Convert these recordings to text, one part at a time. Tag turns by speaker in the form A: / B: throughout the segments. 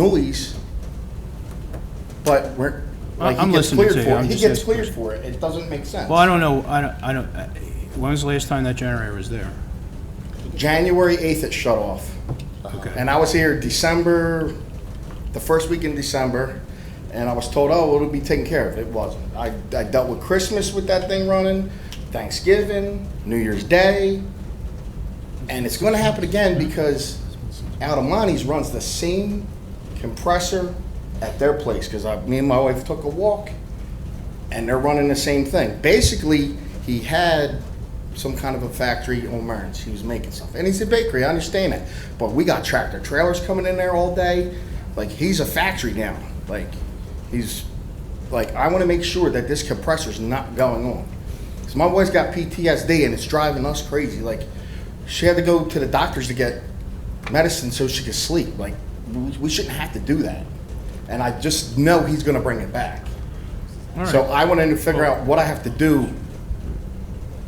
A: noise, but we're,
B: I-
A: like, he
B: I'm
A: gets
B: listening
A: cleared
B: to you,
A: for it.
B: I'm
A: He
B: just
A: gets
B: asking
A: cleared for it. It doesn't make sense.
B: Well, I don't know, I don't, I don't, uh, when was the last time that generator was there?
A: January 8th, it shut off.
B: Okay.
A: And I was here December, the first week in December, and I was told, oh, it'll be taken care of. It wasn't. I, I dealt with Christmas with that thing running, Thanksgiving, New Year's Day, and it's going to happen again because Alamani's runs the same compressor at their place because me and my wife took a walk and they're running the same thing. Basically, he had some kind of a factory on Murns. He was making stuff. And he's a bakery, I understand that. But we got tractor trailers coming in there all day. Like, he's a factory now. Like, he's, like, I want to make sure that this compressor's not going on. Because my boy's got PTSD and it's driving us crazy. Like, she had to go to the doctors to get medicine so she could sleep. Like, we- we shouldn't have to do that. And I just know he's going to bring it back.
B: All
A: So
B: right.
A: I want to figure out what I have to do,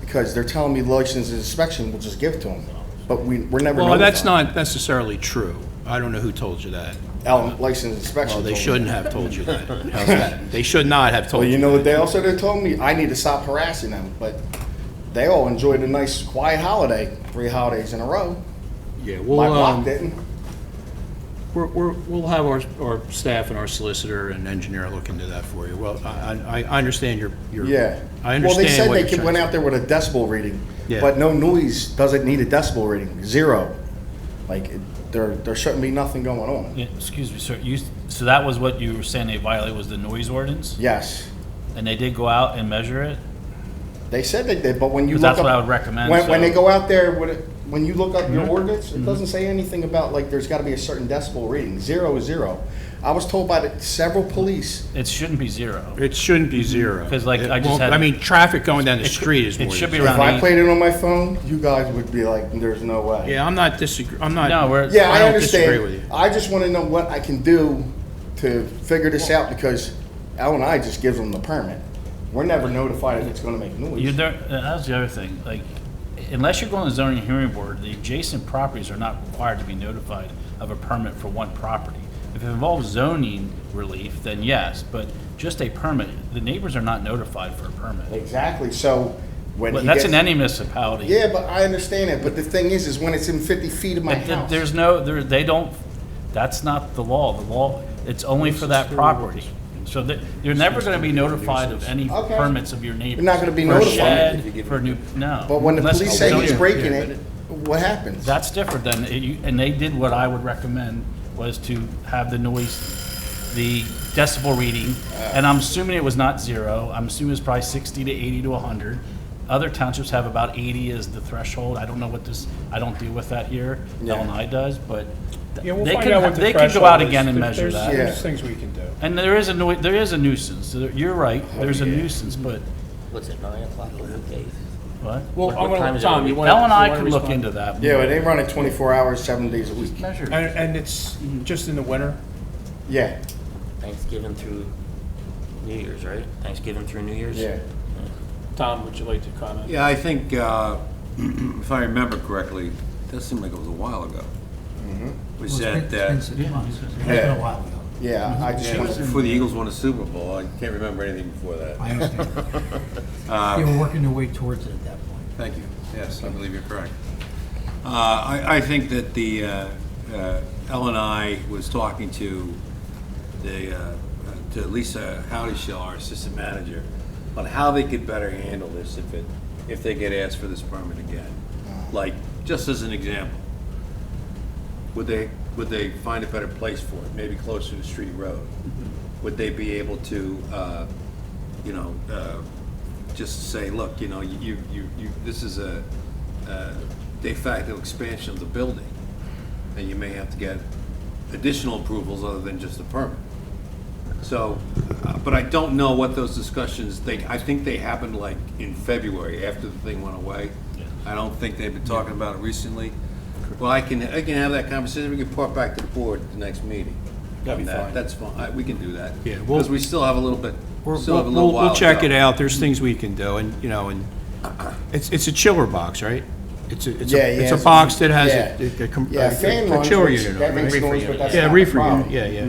A: because they're telling me license and inspection, we'll just give it to them. But we, we're never
B: Well,
A: notified.
B: that's not necessarily true. I don't know who told you that.
A: Al- License and inspection.
B: Well, they
A: told me.
B: shouldn't have told you that. How's that? They should not have told
A: Well,
B: you.
A: you know what they also they told me? I need to stop harassing them, but they all enjoyed a nice quiet holiday, three holidays in a row.
B: Yeah,
A: My
B: we'll,
A: block
B: um,
A: didn't.
B: we're, we're- we'll have our, our staff and our solicitor and engineer look into that for you. Well, I, I, I understand your, your.
A: Yeah.
B: I
A: Well,
B: understand what
A: they
B: you're
A: said they could- went
B: trying-
A: out there with a decibel reading,
B: Yeah.
A: but no noise doesn't need a decibel reading, zero. Like, it- there, there shouldn't be nothing going on.
C: Yeah, Excuse me, sir, you, so that was what you were saying they violated, was the noise ordinance?
A: Yes.
C: And they did go out and measure it?
A: They said they did, but when you look
C: But that's
A: up-
C: what I would
A: When,
C: recommend,
A: when
C: so- Mm-hmm.
A: they go out there, when, it- when you look up your ordinance, it doesn't say anything about like there's got to be a certain decibel reading. Zero is zero. I was told by the, several police.
C: It shouldn't be zero.
B: It shouldn't be zero.
C: 'Cause like
B: It
C: I just
B: won't-
C: had-
B: I mean, traffic going down the
C: It should-
B: street is
C: it
B: more. than
C: should be
B: zero.
A: If
C: around
A: I
C: eight.
A: played it on my phone, you guys would be like, "There's no way."
B: Yeah, I'm not disagree, I'm not.
C: No, we're.
A: Yeah, I,
B: don't disagree with you.
A: understand. I just want to know what I can do to figure this out because Al and I just give them the permit. We're never notified if it's going to make noise.
C: You don't, uh, that was the other thing, like, unless you're going to zoning hearing board, the adjacent properties are not required to be notified of a permit for one property. If it involves zoning relief, then yes, but just a permit, the neighbors are not notified for a permit.
A: exactly. So when
C: But
A: he
C: That's
A: gets-
C: in any municipality.
A: Yeah, but I understand it. But the thing is, is when it's in 50 feet of my
C: Th- th-
A: house.
C: There's no, there, they don't, that's not the law. The law, it's only for that property. So that, you're never gonna be notified of any
A: Okay.
C: permits of your neighbors.
A: not gonna be
C: For a
A: notified.
C: shed, For a new, no.
A: But when the
C: Unless
A: police
C: it's
A: say he's
C: zoning.
A: breaking it, what happens?
C: That's different than, it- you- and they did what I would recommend, was to have the noise, the decibel reading, and I'm assuming it was not zero, I'm assuming it's probably sixty to eighty to hundred. Other townships have about eighty as the threshold, I don't know what this, I don't deal with that here,
A: Yeah.
C: Illinois does, but
D: Yeah, we'll
C: they
D: find out
C: could,
D: what the
C: they
D: threshold
C: could
D: is.
C: go out again and
D: There-
C: measure
D: there's-
C: that.
A: Yeah.
D: There's things we can do.
C: And there is a noi, there is a nuisance, There- you're right,
A: Oh,
C: there's a nuisance, but,
E: What's it, nine o'clock on weekdays?
C: what?
D: Well,
E: What-
D: I'm
E: what time
D: gonna,
E: is it on
D: Tom,
E: the
D: you
E: weekend?
D: want to?
C: Ellen and I could look into that.
A: Yeah, but they run it 24 hours, seven days a week.
C: Measure. it.
D: And, and it's
B: Mm-hmm.
D: just in the winter?
A: Yeah,
E: Thanksgiving through New Year's, right? Thanksgiving through New Year's?
A: yeah.
D: Tom, would you like to comment?
F: Yeah, I think, uh, if I remember correctly, that seemed like it was a while ago. We said that,
A: Yeah, yeah. I just
F: yeah,
A: want to,
F: before the Eagles won a Super Bowl, I can't remember anything before that.
G: I understand. They were working their way towards it at that point.
F: Thank you. Yes, I believe you're correct. Uh, I, I think that the, uh, uh, Ellen I was talking to the, uh, to Lisa Howdeshell, our assistant manager, on how they could better handle this if it, if they get asked for this permit again. Like, just as an example, would they, would they find a better place for it, maybe closer to Street Road? Would they be able to, uh, you know, uh, just say, look, you know, you, you, you, this is a uh, de facto expansion of the building, and you may have to get additional approvals other than just the permit. So, uh, but I don't know what those discussions, they, I think they happened like in February, after the thing went away. I don't think they've been talking about it recently. Well, I can, I can have that conversation, we can report back to the board at the next meeting.
B: That'd be
F: On that.
B: fine.
F: That's fine, I- we can do that.
B: Yeah, we'll-
F: Because we still have a little bit,
B: We're-
F: still have a
B: We'll,
F: little
B: we'll-
F: while
B: we'll
F: to
B: check
F: go.
B: it out, there's things we can do, and, you know, and, it's, it's a chiller box, right? It's a, it's
A: Yeah,
B: a,
A: yeah.
B: it's a box that has
A: yeah.
B: a- a, com-
A: Yeah, fan
B: a
A: runs,
B: chill
A: which-
B: unit on it.
A: That makes
B: Reefer
A: noise,
B: unit.
A: but that's
B: Yeah,
A: not the
B: reefer
A: problem.
B: unit, yeah, yeah.